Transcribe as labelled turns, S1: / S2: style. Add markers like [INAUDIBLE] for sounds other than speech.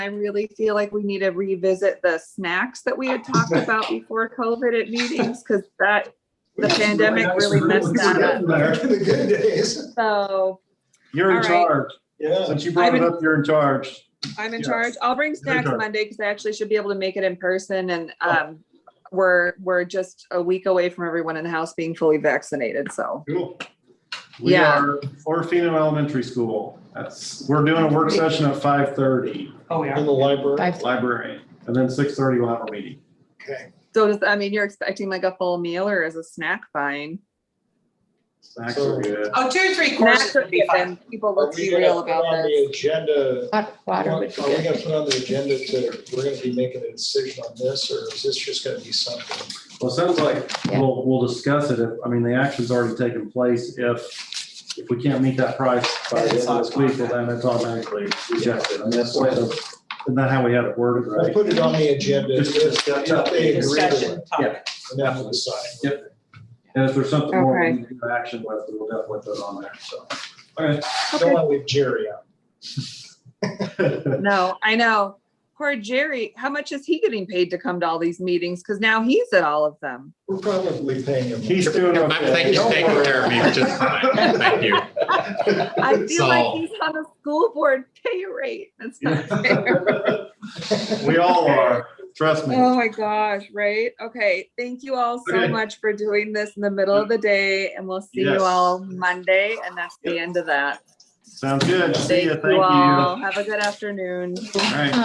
S1: I really feel like we need to revisit the snacks that we had talked about before COVID at meetings, because that, The pandemic really messed that up.
S2: The good days.
S1: so
S3: You're in
S1: All right.
S3: charge.
S2: Yeah.
S3: Since you brought it
S1: I'm in-
S3: up, you're in charge.
S1: I'm in
S3: Yes.
S1: charge. I'll bring snacks
S3: charge.
S1: Monday because I actually should be able to make it in person and
S2: Oh.
S1: um, we're, we're just a week away from everyone in the house being fully vaccinated, so.
S3: Cool. We
S1: Yeah.
S3: are Orfino Elementary School. That's, we're doing a work session at five thirty,
S4: Oh, we
S2: In
S4: are.
S2: the library.
S5: Five,
S3: library, and then six thirty we'll have a meeting.
S2: Okay.
S1: So does, I mean, you're expecting like a full meal or is a snack fine?
S3: Snacks are good.
S4: Oh, two or three courses
S1: Snacks are
S4: would be
S1: good
S4: fun.
S1: and people,
S2: Are
S1: let's
S2: we
S1: be
S2: gonna
S1: real
S2: put
S1: about
S2: on
S1: this.
S2: The agenda,
S5: hot water
S2: are we
S5: would be
S2: gonna
S5: good.
S2: put on the agenda to, we're gonna be making a decision on this, or is this just gonna be something?
S3: Well, it sounds like
S5: Yeah.
S3: we'll, we'll discuss it. If- I mean, the action's already taken place. If, if we can't meet that price by the end of this week, well, then it's automatically rejected. And that's why, isn't that how we had it worded,
S2: We'll
S3: right?
S2: put it on the agenda
S3: Just-
S2: if, if they agree with it,
S4: Discussion topic.
S2: and then we'll decide.
S3: Yep. And if there's something more we
S1: Okay.
S3: need to do action with, we'll definitely put it on there, so. Okay.
S2: Don't wanna leave Jerry out.
S1: No, I know. Poor Jerry, how much is he getting paid to come to all these meetings? Because now he's at all of them.
S2: We're probably paying him.
S3: He's doing
S6: I'm
S3: okay.
S6: thank you, taking care of me just fine. Thank you.
S3: [LAUGHS]
S1: I feel
S6: So-
S1: like he's on a school board [LAUGHS] pay rate. That's not fair.
S3: [LAUGHS] We all are, trust me.
S1: Oh my gosh, right? Okay, thank you all so
S3: Okay.
S1: much for doing this in the middle of the day and we'll see
S3: Yes.
S1: you all Monday and that's the end of that.
S3: Sounds good. See
S1: Thank
S3: ya,
S1: you
S3: thank you. All
S1: all. Have a good afternoon.
S3: right.